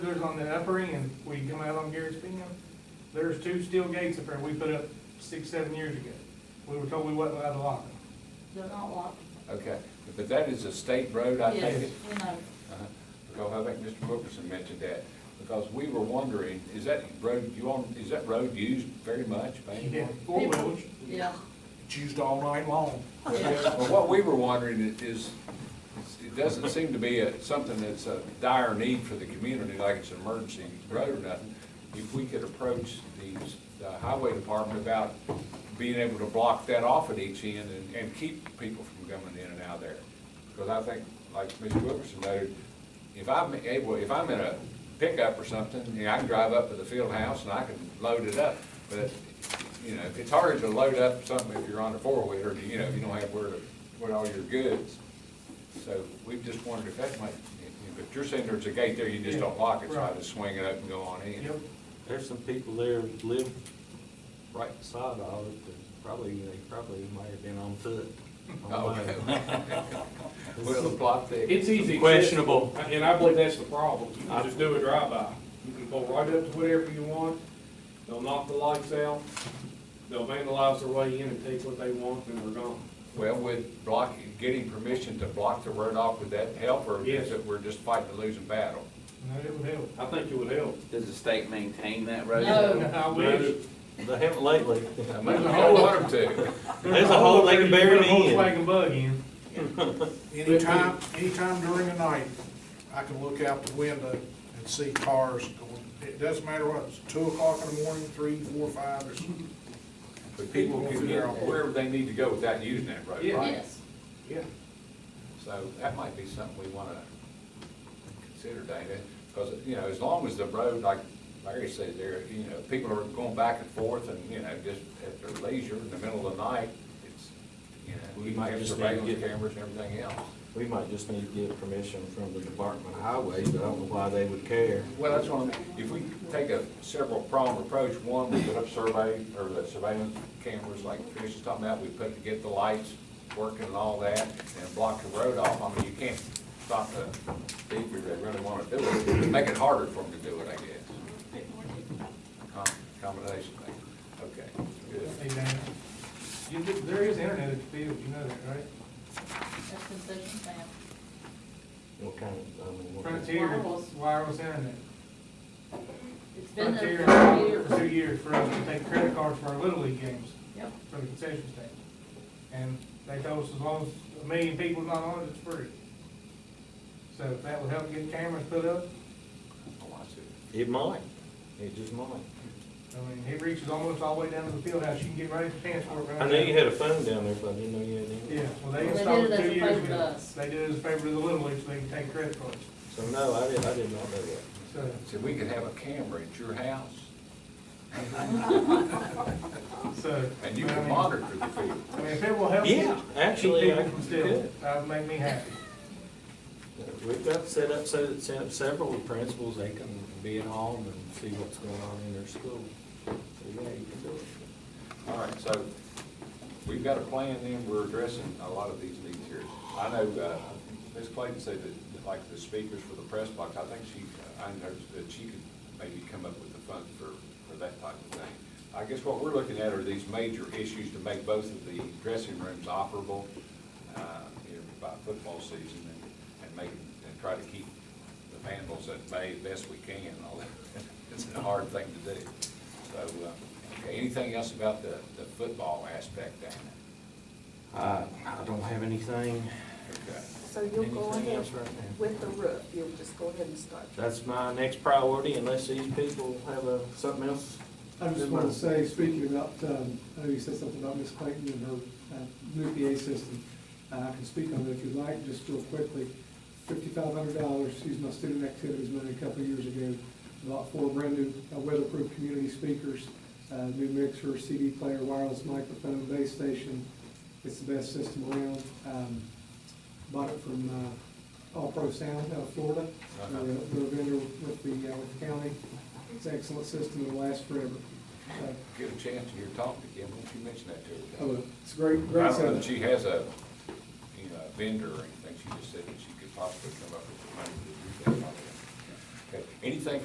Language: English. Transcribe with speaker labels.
Speaker 1: others on the upper end, we come out on Garrett's Bend, there's two steel gates up there we put up six, seven years ago. We were told we wasn't allowed to lock them.
Speaker 2: They're not locked.
Speaker 3: Okay, but that is a state road, I take
Speaker 2: Yes,
Speaker 3: it?
Speaker 2: you know,
Speaker 3: Uh-huh. Because I think Mr. Wilkerson mentioned that, because we were wondering, is that road, you on, is that road used very much by
Speaker 1: Yeah,
Speaker 3: anyone?
Speaker 1: four wheels.
Speaker 2: yeah,
Speaker 4: It's used all night long.
Speaker 2: Yeah.
Speaker 3: Well, what we were wondering i- is, it doesn't seem to be a- something that's a dire need for the community, like it's an emergency road or nothing. If we could approach these, the highway department about being able to block that off at each end and, and keep people from coming in and out of there. Because I think, like Mr. Wilkerson noted, if I'm able, if I'm in a pickup or something, you know, I can drive up to the field house and I can load it up. But, you know, it's hard to load up something if you're on a four-wheeler, you know, if you don't have where to put all your goods. So we just wondered if that might, but you're saying there's a gate there, you just don't lock it, so I just swing it up and go on in.
Speaker 1: Yep.
Speaker 5: There's some people there that live
Speaker 3: Right.
Speaker 5: right beside all of it, that probably, they probably might have been on foot.
Speaker 3: Oh, okay. Well, the plot there.
Speaker 6: It's easy.
Speaker 5: Questionable.
Speaker 6: And I believe that's the problem. You can just do a drive-by. You can go right up to whatever you want. They'll knock the lights out. They'll vandalize their way in and take what they want and they're gone.
Speaker 3: Well, with block, getting permission to block the road off, would that help, or
Speaker 6: Yes.
Speaker 3: is it we're just fighting a losing battle?
Speaker 1: No, it would help.
Speaker 6: I think it would help.
Speaker 7: Does the state maintain that road?
Speaker 2: No.
Speaker 1: I wish.
Speaker 5: They haven't lately.
Speaker 3: I mean, I don't want 'em to.
Speaker 5: There's a hole they can bury
Speaker 1: Put a
Speaker 5: me in.
Speaker 1: Volkswagen bug in.
Speaker 4: Anytime, anytime during the night, I can look out the window and see cars going. It doesn't matter what, it's two o'clock in the morning, three, four, five, or something.
Speaker 3: But people can get wherever they need to go without using that road,
Speaker 6: Yeah.
Speaker 3: right?
Speaker 2: yes.
Speaker 6: Yeah.
Speaker 3: So that might be something we want to consider, David, because, you know, as long as the road, like Larry said there, you know, people are going back and forth and, you know, just at their leisure in the middle of the night, it's, you know, we might have
Speaker 5: Just need to
Speaker 3: surveillance
Speaker 5: get-
Speaker 3: cameras and everything else.
Speaker 5: We might just need to get permission from the Department of Highways, but I don't know why they would care.
Speaker 3: Well, that's one, of the- if we take a several pronged approach, one, we put up survey, or the surveillance cameras like Trish was talking about, we put, to get the lights working and all that, and block the road off, I mean, you can't stop the thief if they really wanna do it, make it harder for them to do it, I guess. Com- Combination thing, okay, good.
Speaker 1: Hey, Dan, you, did- there is internet at the field, you know that, right?
Speaker 2: That's concession stand.
Speaker 5: What kind of, I mean, what kind of-
Speaker 1: Frontier,
Speaker 2: Wireless.
Speaker 1: wireless internet.
Speaker 2: It's been there
Speaker 1: Frontier,
Speaker 2: for
Speaker 1: for two
Speaker 2: years.
Speaker 1: years for us to take credit cards for our Little League games
Speaker 2: Yep,
Speaker 1: for the concession stand. And they told us as long as a million people's not on it, it's free. So if that would help get cameras put up,
Speaker 3: Oh, I see.
Speaker 5: It might, it just might.
Speaker 1: I mean, it reaches almost all the way down to the field house, you can get right in your pants for it. right
Speaker 5: I knew you
Speaker 1: now.
Speaker 5: had a phone down there, but I didn't know you had any.
Speaker 1: Yeah, well, they
Speaker 2: They
Speaker 1: installed it
Speaker 2: did it as
Speaker 1: two
Speaker 2: a
Speaker 1: years
Speaker 2: favor to
Speaker 1: ago.
Speaker 2: us.
Speaker 1: They did it as a favor to the Little League, so they can take credit cards,
Speaker 5: So no, I did, I did not know that.
Speaker 1: so.
Speaker 3: So we could have a camera at your house,
Speaker 1: So.
Speaker 3: and you
Speaker 1: I
Speaker 3: can
Speaker 1: mean-
Speaker 3: monitor the field.
Speaker 1: I mean, if it will help.
Speaker 5: Yeah, actually,
Speaker 1: Keep
Speaker 5: I
Speaker 1: people from stealing,
Speaker 5: could.
Speaker 1: that'd make me happy.
Speaker 5: Uh, We've got set up, so that set up several principals, they can be at home and see what's going on in their school. So yeah, you can do it.
Speaker 3: All right, so we've got a plan then, we're addressing a lot of these needs here. I know, uh, Ms. Clayton said that, that, like the speakers for the press box, I think she, I noticed that she could maybe come up with the funds for, for that type of thing. I guess what we're looking at are these major issues to make both of the dressing rooms operable, uh, you know, by football season and, and make, and try to keep the vandals at bay best we can, although it's a hard thing to do. So, uh, okay, anything else about the, the football aspect down
Speaker 5: Uh, I don't have anything.
Speaker 3: there? Okay.
Speaker 8: So you'll go
Speaker 5: Anything
Speaker 8: ahead
Speaker 5: else right now?
Speaker 8: with the roof, you'll just go ahead and start.
Speaker 5: That's my next priority unless these people have a, something else.
Speaker 9: I just want to say, speaking about, um, I know you said something about Miss Clayton and her uh, new PA system. Uh, I can speak on it if you'd like, just real quickly. Fifty-five hundred dollars, she's my student activities money a couple of years ago. Bought four brand new uh, weatherproof community speakers, uh, new mixer, CD player, wireless microphone, base station. It's the best system around. Um, Bought it from uh, All Pro Sound out of Florida. They're a they're a vendor with the, uh, with the county. It's an excellent system, it'll last forever. So,
Speaker 3: Get a chance to hear talking again, won't you mention that to her?
Speaker 9: Oh, It's a great,
Speaker 3: I
Speaker 9: great
Speaker 3: don't know that
Speaker 9: setup.
Speaker 3: she has a, you know, a vendor or anything, she just said that she could possibly come up with the money to do that. Okay. Anything